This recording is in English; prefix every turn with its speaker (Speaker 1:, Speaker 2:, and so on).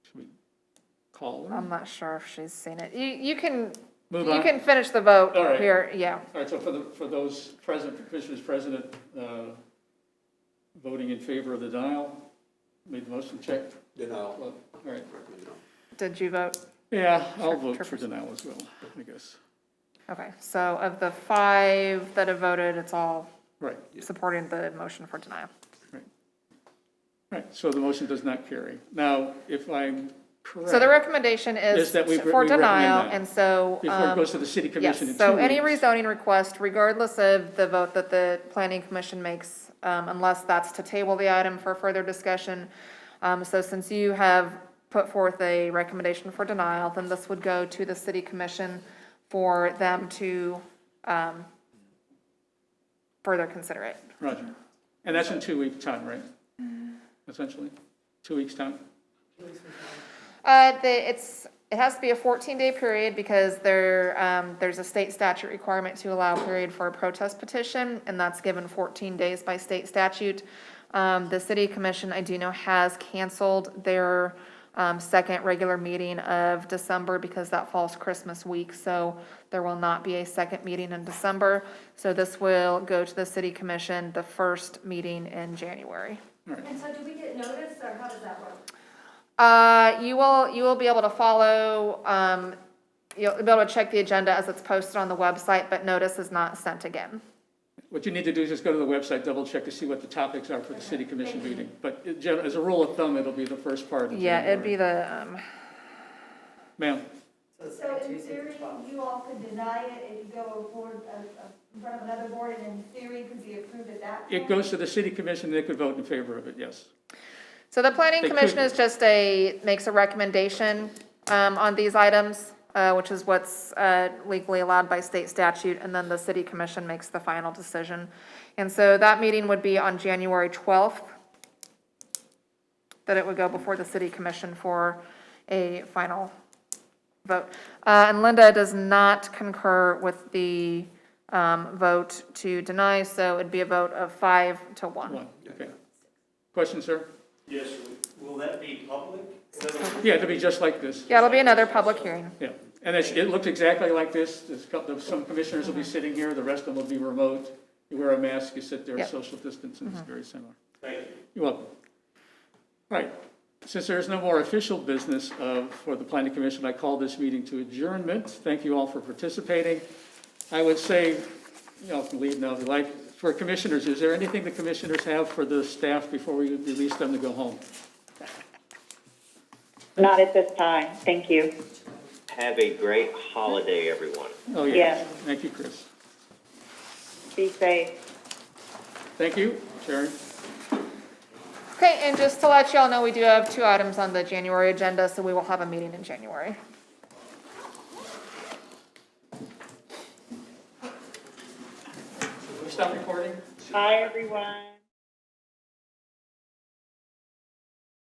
Speaker 1: caller?
Speaker 2: I'm not sure if she's seen it. You, you can,
Speaker 1: Move
Speaker 2: you
Speaker 1: on.
Speaker 2: can finish the vote
Speaker 1: All right.
Speaker 2: here, yeah.
Speaker 1: All right, so for the, for those present, for commissioners present, uh, voting in favor of the denial, made the motion, check.
Speaker 3: Denial.
Speaker 1: Well, All right,
Speaker 2: Did you vote?
Speaker 1: yeah, I'll vote for denial as well, I guess.
Speaker 2: Okay, so of the five that have voted, it's all
Speaker 1: Right,
Speaker 2: supporting the motion for denial.
Speaker 1: right. All right, so the motion does not carry. Now, if I'm correct.
Speaker 2: So the recommendation is
Speaker 1: Is that we- we
Speaker 2: for
Speaker 1: recommend
Speaker 2: denial,
Speaker 1: that.
Speaker 2: and so.
Speaker 1: Before it
Speaker 2: um,
Speaker 1: goes to the city commission in
Speaker 2: Yes, so
Speaker 1: two
Speaker 2: any
Speaker 1: weeks.
Speaker 2: rezoning request, regardless of the vote that the planning commission makes, um, unless that's to table the item for further discussion. Um, so since you have put forth a recommendation for denial, then this would go to the city commission for them to, um, further consider it.
Speaker 1: Roger. And that's in two weeks' time, right? Essentially, two weeks' time?
Speaker 2: Uh, the, it's, it has to be a fourteen day period because there, um, there's a state statute requirement to allow a period for a protest petition, and that's given fourteen days by state statute. Um, the city commission, I do know, has canceled their, um, second regular meeting of December because that falls Christmas week, so there will not be a second meeting in December. So this will go to the city commission, the first meeting in January.
Speaker 4: And so do we get notice, or how does that work?
Speaker 2: Uh, you will, you will be able to follow, um, you'll be able to check the agenda as it's posted on the website, but notice is not sent again.
Speaker 1: What you need to do is just go to the website, double-check to see what the topics are for the city commission meeting. But in gen- as a rule of thumb, it'll be the first part of
Speaker 2: Yeah, it'd be
Speaker 1: January.
Speaker 2: the, um,
Speaker 1: Ma'am,
Speaker 4: So in theory, you all could deny it if you go forward, uh, uh, in front of another board, and in theory, it could be approved at that point?
Speaker 1: it goes to the city commission, they could vote in favor of it, yes.
Speaker 2: so the planning
Speaker 1: They could.
Speaker 2: commission is just a, makes a recommendation, um, on these items, uh, which is what's, uh, legally allowed by state statute, and then the city commission makes the final decision. And so that meeting would be on January twelfth, that it would go before the city commission for a final vote. Uh, And Linda does not concur with the um, vote to deny, so it'd be a vote of five to one.
Speaker 1: One, okay. Question, sir?
Speaker 5: Yes, will that be public? In other words,
Speaker 1: Yeah, it'll be just like this.
Speaker 2: Yeah, it'll be another public hearing.
Speaker 1: Yeah, and it's, it looked exactly like this. There's a couple, of- some commissioners will be sitting here, the rest of them will be remote. You wear a mask, you sit there,
Speaker 2: Yeah. Mm-hmm.
Speaker 1: social distance, and it's very similar.
Speaker 5: Thank you.
Speaker 1: You're welcome. All right, since there is no more official business of, for the planning commission, I call this meeting to adjournment. Thank you all for participating. I would say, you all can leave now if you like. For commissioners, is there anything the commissioners have for the staff before we release them to go home?
Speaker 6: Not at this time, thank you.
Speaker 7: Have a great holiday, everyone.
Speaker 1: Oh,
Speaker 6: Yes.
Speaker 1: Thank you, Chris.
Speaker 6: Be safe.
Speaker 1: Thank you, Sharon.
Speaker 2: Okay, and just to let y'all know, we do have two items on the January agenda, so we will have a meeting in January.
Speaker 1: Can we stop recording?
Speaker 6: Bye, everyone.